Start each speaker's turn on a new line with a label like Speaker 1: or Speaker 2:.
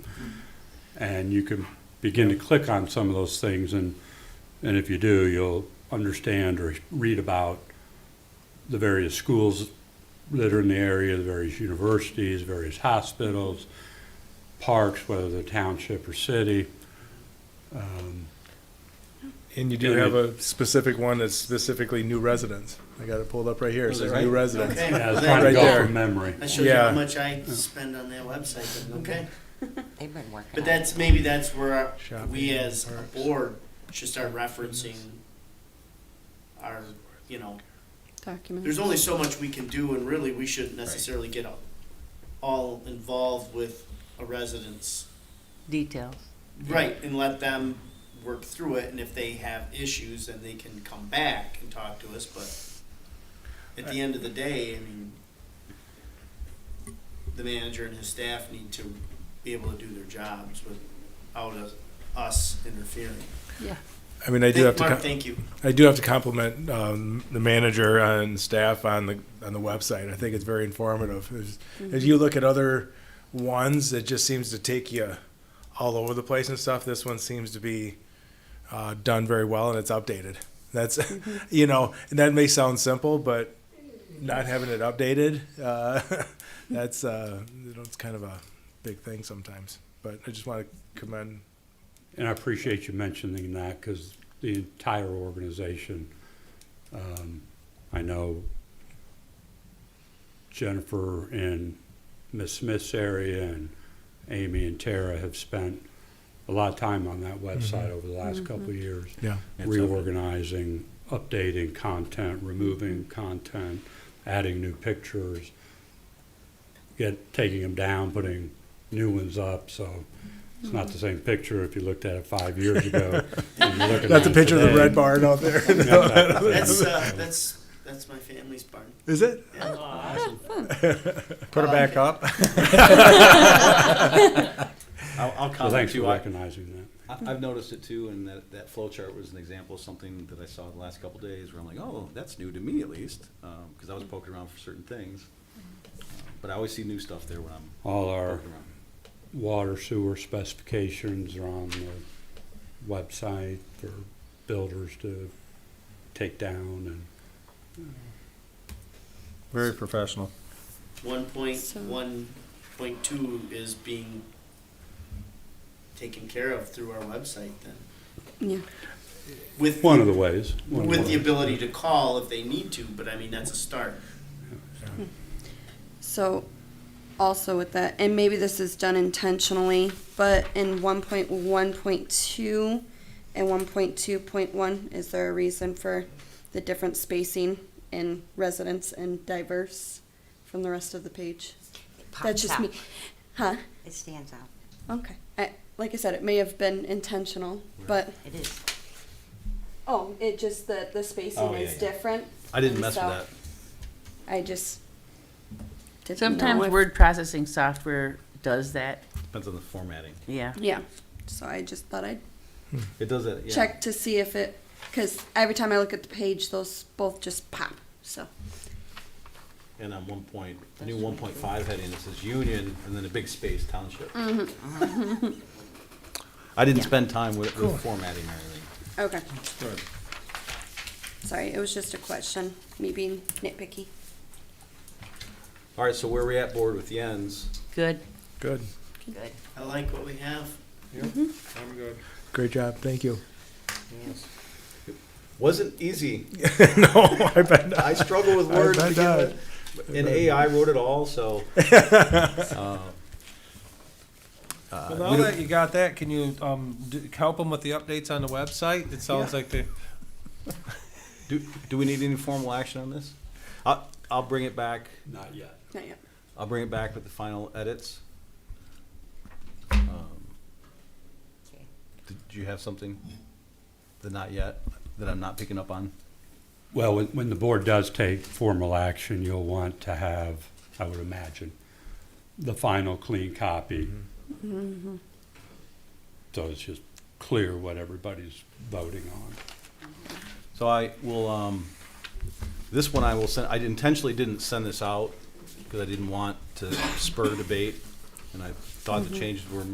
Speaker 1: And you can begin to click on some of those things and, and if you do, you'll understand or read about the various schools that are in the area, the various universities, various hospitals, parks, whether they're township or city.
Speaker 2: And you do have a specific one that's specifically new residents. I got it pulled up right here. It
Speaker 3: Was it
Speaker 2: says
Speaker 3: right?
Speaker 2: new residents.
Speaker 3: Okay,
Speaker 1: Yeah, I was
Speaker 3: well,
Speaker 1: trying to
Speaker 2: Right
Speaker 3: there-
Speaker 1: go
Speaker 2: there.
Speaker 1: from memory.
Speaker 3: That shows you how
Speaker 2: Yeah.
Speaker 3: much I spend on their website, but okay.
Speaker 4: They've been working.
Speaker 3: But
Speaker 4: on
Speaker 3: that's, maybe that's where our-
Speaker 2: Shopping
Speaker 3: we
Speaker 2: in
Speaker 3: as a
Speaker 2: parks.
Speaker 3: board should start referencing our, you know,
Speaker 5: document.
Speaker 3: there's only so much we can do and really we shouldn't necessarily get all- all involved with a residence.
Speaker 4: details.
Speaker 3: Right, and let them work through it, and if they have issues, then they can come back and talk to us, but at the end of the day, I mean, the manager and his staff need to be able to do their jobs without us- us interfering.
Speaker 5: Yeah.
Speaker 2: I mean, I do have
Speaker 3: Thank-
Speaker 2: to,
Speaker 3: Mark,
Speaker 2: com-
Speaker 3: thank you.
Speaker 2: I do have to compliment, um, the manager and staff on the, on the website. I think it's very informative. As- As you look at other ones, it just seems to take you all over the place and stuff. This one seems to be, uh, done very well and it's updated. That's, you know, and that may sound simple, but not having it updated, uh, that's, uh, you know, it's kind of a big thing sometimes. But I just want to commend
Speaker 1: And I appreciate you mentioning that because the entire organization, um, I know Jennifer and Miss Smith's area and Amy and Tara have spent a lot of time on that website over the last couple of years.
Speaker 2: Yeah.
Speaker 1: reorganizing, updating content, removing content, adding new pictures, get, taking them down, putting new ones up, so it's not the same picture if you looked at it five years ago.
Speaker 2: That's
Speaker 1: That's
Speaker 2: a picture of the red barn out there.
Speaker 3: That's, uh, that's, that's my family's barn.
Speaker 2: Is it? Put it back up.
Speaker 6: I'll, I'll
Speaker 1: So
Speaker 6: comment
Speaker 1: thanks for
Speaker 6: too. I,
Speaker 1: recognizing that.
Speaker 6: I- I've noticed it too, and that, that flow chart was an example of something that I saw the last couple days where I'm like, oh, that's new to me at least, because I was poking around for certain things. Um, But I always see new stuff there when I'm
Speaker 1: All our
Speaker 6: poking around.
Speaker 1: water sewer specifications are on the website for builders to take down
Speaker 7: Very professional.
Speaker 3: One point,
Speaker 5: So-
Speaker 3: one point two is being taken care of through our website then.
Speaker 5: Yeah.
Speaker 3: With
Speaker 1: and one of the ways. one of
Speaker 3: with the
Speaker 1: ways.
Speaker 3: ability to call if they need to, but I mean, that's a start.
Speaker 5: So also with that, and maybe this is done intentionally, but in 1.1.2 and 1.2.1, is there a reason for the different spacing in residents and diverse from the rest of the page?
Speaker 4: It
Speaker 5: That's
Speaker 4: pops
Speaker 5: just
Speaker 4: out.
Speaker 5: me. Huh?
Speaker 4: It stands out.
Speaker 5: Okay. I, like I said, it may have been intentional, but
Speaker 4: It is.
Speaker 5: oh, it just the the spacing
Speaker 6: Oh, yeah,
Speaker 5: is
Speaker 6: yeah.
Speaker 5: different.
Speaker 6: I didn't
Speaker 5: and
Speaker 6: mess with
Speaker 5: so
Speaker 6: that.
Speaker 5: I just didn't know
Speaker 8: Sometimes
Speaker 5: if-
Speaker 8: word processing software does that,
Speaker 6: Depends on the formatting.
Speaker 8: yeah.
Speaker 5: Yeah. So I just thought I'd
Speaker 6: It does that, yeah.
Speaker 5: check to see if it, because every time I look at the page, those both just pop. So
Speaker 6: And on one point, the new one point five heading, it says union, and then a big space township. I didn't spend time with, with formatting or anything.
Speaker 5: okay, sorry, it was just a question. Me being nitpicky.
Speaker 6: All right, so where are we at, board, with the ends?
Speaker 8: Good.
Speaker 2: Good.
Speaker 4: Good.
Speaker 3: I like what we have.
Speaker 7: I'm good.
Speaker 2: Great job. Thank you.
Speaker 6: Wasn't easy.
Speaker 2: no, I bet not.
Speaker 6: I struggle with
Speaker 2: I
Speaker 6: words to
Speaker 2: bet
Speaker 6: begin
Speaker 2: not.
Speaker 6: with. But- And AI wrote it all, so. uh, uh,
Speaker 7: Well,
Speaker 6: we
Speaker 7: now
Speaker 6: don't-
Speaker 7: that you got that, can you um, d- help them with the updates on the website? It sounds like they.
Speaker 6: Do, do we need any formal action on this? I'll, I'll bring it back,
Speaker 1: Not yet.
Speaker 5: Not yet.
Speaker 6: I'll bring it back with the final edits. Um,
Speaker 4: Okay.
Speaker 6: Did you have something? The not yet, that I'm not picking up on?
Speaker 1: Well, when, when the board does take formal action, you'll want to have, I would imagine, the final clean copy. Mm-hmm. So it's just clear what everybody's voting on.
Speaker 6: So I will, um, this one I will send, I intentionally didn't send
Speaker 2: Mm-hmm.
Speaker 6: this out because I didn't want to spur debate. And I thought the changes were